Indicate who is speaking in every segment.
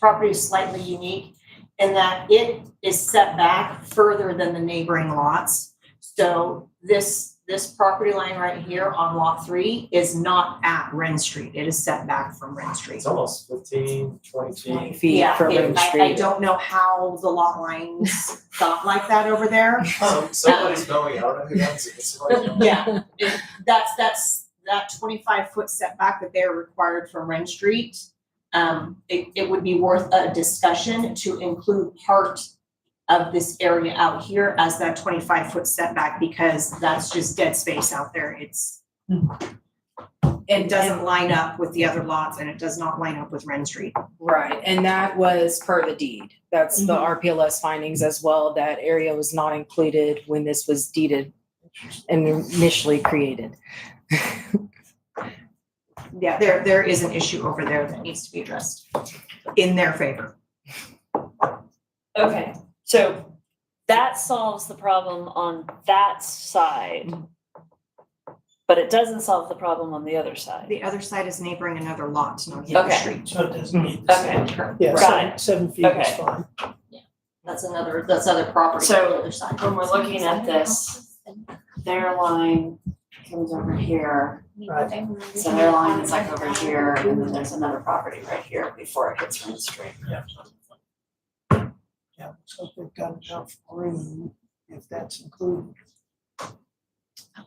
Speaker 1: property is slightly unique in that it is set back further than the neighboring lots. So this, this property line right here on lot three is not at Ren Street. It is set back from Ren Street.
Speaker 2: It's almost 15, 20 feet.
Speaker 3: feet
Speaker 1: Yeah,
Speaker 3: for
Speaker 1: it-
Speaker 3: Ring
Speaker 1: I, I
Speaker 3: Street.
Speaker 1: don't know how the lot lines got like that over there.
Speaker 2: Some- Um, Somebody's going out of it, that's, it's like,
Speaker 1: Yeah, it- that's, that's, that twenty-five foot setback that they're required from Ren Street. Um, it, it would be worth a discussion to include part of this area out here as that twenty-five foot setback because that's just dead space out there. It's it doesn't line up with the other lots and it does not line up with Ren Street.
Speaker 3: Right, and that was per the deed. That's the
Speaker 1: Mhm.
Speaker 3: RPLS findings as well. That area was not included when this was deeded and initially created.
Speaker 1: Yeah, there, there is an issue over there that needs to be addressed in their favor.
Speaker 4: Okay, so that solves the problem on that side. But it doesn't solve the problem on the other side.
Speaker 1: The other side is neighboring another lot, not the other
Speaker 4: Okay.
Speaker 1: street.
Speaker 5: So it doesn't meet the
Speaker 4: Okay,
Speaker 5: same term.
Speaker 4: Yeah, Right.
Speaker 5: Seven feet
Speaker 4: is Okay.
Speaker 5: fine.
Speaker 1: That's another, that's other property
Speaker 4: So,
Speaker 1: on the other side.
Speaker 4: when we're looking at this, their line comes over here.
Speaker 5: Right.
Speaker 4: So their line is like over here, and then there's another property right here before it hits Ring Street.
Speaker 5: Yeah, so if they've got enough room, if that's included,
Speaker 4: Oh,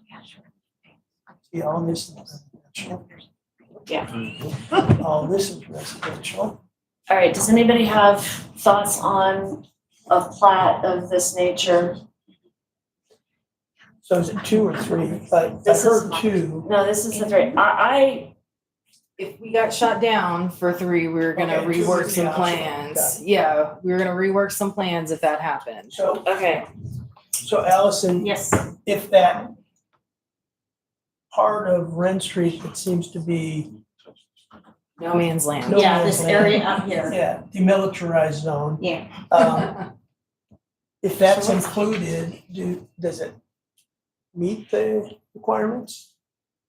Speaker 5: yeah, all this is residential. All this is residential.
Speaker 4: All right, does anybody have thoughts on a plat of this nature?
Speaker 5: So is it two or three? I, I
Speaker 4: This is
Speaker 5: heard
Speaker 4: mine.
Speaker 5: two.
Speaker 4: No, this is the three. I,
Speaker 3: If we got shot down for three, we were gonna
Speaker 5: Okay, two
Speaker 3: rework
Speaker 5: was the
Speaker 3: some
Speaker 5: option.
Speaker 3: plans. Yeah, we were gonna rework some plans if that happened.
Speaker 5: So,
Speaker 4: I, okay.
Speaker 5: so Allison,
Speaker 1: Yes,
Speaker 5: if that part of Ren Street that seems to be,
Speaker 3: No man's land.
Speaker 5: No
Speaker 1: yeah, this
Speaker 5: man's land.
Speaker 1: area out here,
Speaker 5: yeah, demilitarized zone.
Speaker 1: Yeah.
Speaker 5: Um, If that's
Speaker 1: So what's-
Speaker 5: included, do, does it meet the requirements?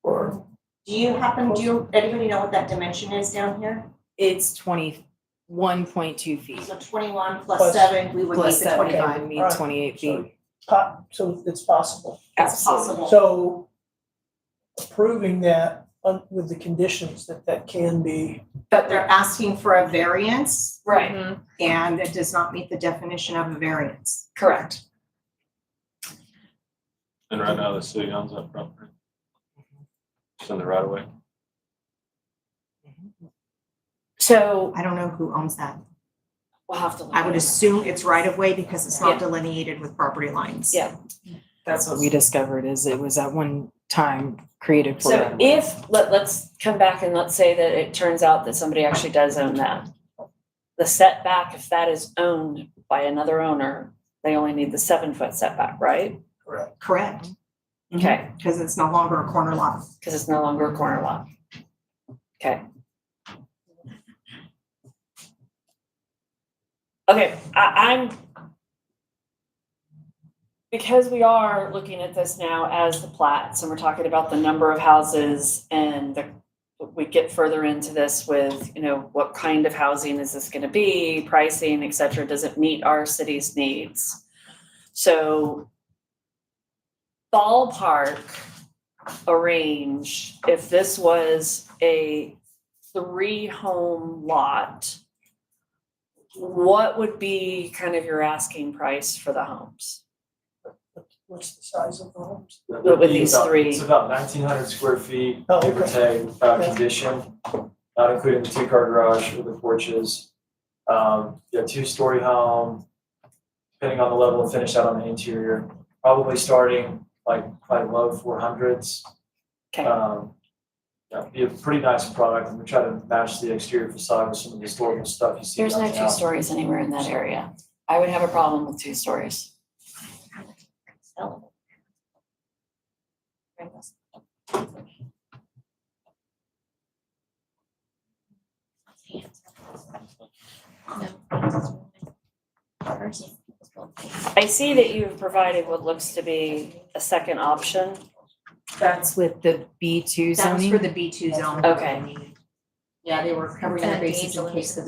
Speaker 5: Or,
Speaker 1: do you happen, do you, anybody know what that dimension is down here?
Speaker 3: It's twenty-one point two feet.
Speaker 1: So twenty-one plus
Speaker 5: Plus-
Speaker 1: seven, we would
Speaker 3: Plus
Speaker 1: need the
Speaker 3: seven,
Speaker 1: twenty-five.
Speaker 3: it would mean
Speaker 5: Alright,
Speaker 3: twenty-eight
Speaker 5: so,
Speaker 3: feet.
Speaker 5: po- so it's possible.
Speaker 1: It's
Speaker 3: Absolutely.
Speaker 1: possible.
Speaker 5: So approving that on- with the conditions that that can be,
Speaker 1: But they're asking for a variance
Speaker 4: Right.
Speaker 1: and it does not meet the definition of a variance.
Speaker 4: Correct.
Speaker 6: And right now, the city owns that property. It's in the right of way.
Speaker 4: So
Speaker 1: I don't know who owns that.
Speaker 4: we'll have to. look
Speaker 1: I would
Speaker 4: at it.
Speaker 1: assume it's right of way because it's not
Speaker 4: Yeah.
Speaker 1: delineated with property lines.
Speaker 4: Yeah.
Speaker 3: That's what we discovered is it was at one time created for.
Speaker 4: So
Speaker 3: that.
Speaker 4: if, let, let's come back and let's say that it turns out that somebody actually does own that. The setback, if that is owned by another owner, they only need the seven foot setback, right?
Speaker 5: correct,
Speaker 1: Correct, Mm-hmm.
Speaker 4: Okay,
Speaker 1: because it's no longer a corner lot.
Speaker 4: because it's no longer a corner lot. Okay. Okay, I, I'm. Because we are looking at this now as the plats and we're talking about the number of houses and the. We get further into this with, you know, what kind of housing is this gonna be, pricing, et cetera, does it meet our city's needs? So. Ballpark arrange if this was a three home lot, what would be kind of your asking price for the homes?
Speaker 5: what's the size of the homes?
Speaker 2: That
Speaker 4: What would
Speaker 2: be
Speaker 4: these
Speaker 2: about-
Speaker 4: three-
Speaker 2: It's about nineteen hundred square feet,
Speaker 5: Oh,
Speaker 2: give or
Speaker 5: okay.
Speaker 2: take, uh,
Speaker 5: Yeah.
Speaker 2: condition, not including the two car garage with the porches. Um, yeah, two story home, depending on the level of finish out on the interior, probably starting like, like low four hundreds.
Speaker 4: Okay,
Speaker 2: Um, yeah, be a pretty nice product, and we try to match the exterior facade with some of the historical stuff you see.
Speaker 4: there's no two
Speaker 2: downtown.
Speaker 4: stories anywhere in that area. I would have a problem with two stories. I see that you've provided what looks to be a second option.
Speaker 3: That's with the B two
Speaker 1: That was
Speaker 3: zoning.
Speaker 1: for the B two zone.
Speaker 4: Okay.
Speaker 1: Yeah, they were covering
Speaker 7: And
Speaker 1: their
Speaker 7: the
Speaker 1: bases in
Speaker 7: angel
Speaker 1: case the